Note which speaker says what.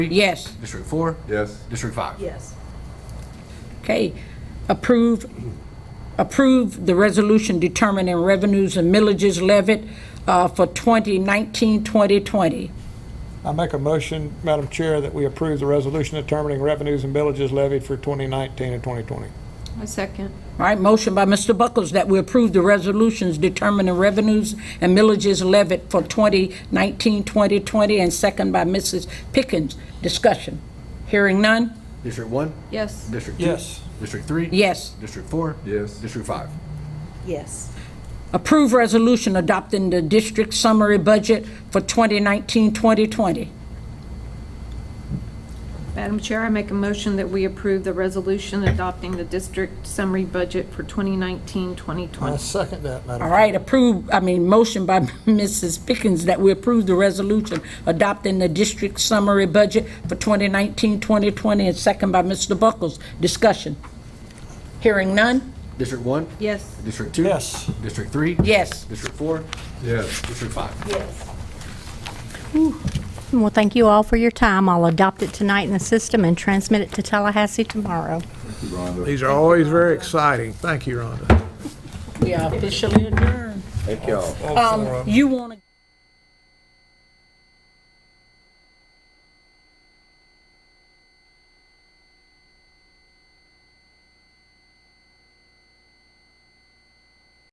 Speaker 1: Yes.
Speaker 2: District four?
Speaker 3: Yes.
Speaker 2: District five?
Speaker 4: Yes.
Speaker 1: Okay. Approve, approve the resolution determining revenues and millages levied uh, for 2019, 2020.
Speaker 5: I make a motion, Madam Chair, that we approve the resolution determining revenues and villages levied for 2019 and 2020.
Speaker 6: I second.
Speaker 1: All right, motion by Mr. Buckles that we approve the resolutions determining revenues and millages levied for 2019, 2020, and second by Mrs. Pickens. Discussion. Hearing none?
Speaker 2: District one?
Speaker 6: Yes.
Speaker 2: District two?
Speaker 5: Yes.
Speaker 2: District three?
Speaker 1: Yes.
Speaker 2: District four?
Speaker 3: Yes.
Speaker 2: District five?
Speaker 4: Yes.
Speaker 1: Approve resolution adopting the district summary budget for 2019, 2020.
Speaker 6: Madam Chair, I make a motion that we approve the resolution adopting the district summary budget for 2019-2020.
Speaker 5: I second that, Madam.
Speaker 1: All right, approve, I mean, motion by Mrs. Pickens that we approve the resolution adopting the district summary budget for 2019, 2020, and second by Mr. Buckles. Discussion. Hearing none?
Speaker 2: District one?
Speaker 6: Yes.
Speaker 2: District two?
Speaker 5: Yes.
Speaker 2: District three?
Speaker 1: Yes.
Speaker 2: District four?
Speaker 3: Yes.
Speaker 2: District five?
Speaker 4: Yes.
Speaker 7: Well, thank you all for your time. I'll adopt it tonight in the system and transmit it to Tallahassee tomorrow.
Speaker 3: Rhonda.
Speaker 5: These are always very exciting. Thank you, Rhonda.
Speaker 1: We are officially adjourned.
Speaker 3: Thank y'all.
Speaker 1: Um, you want to...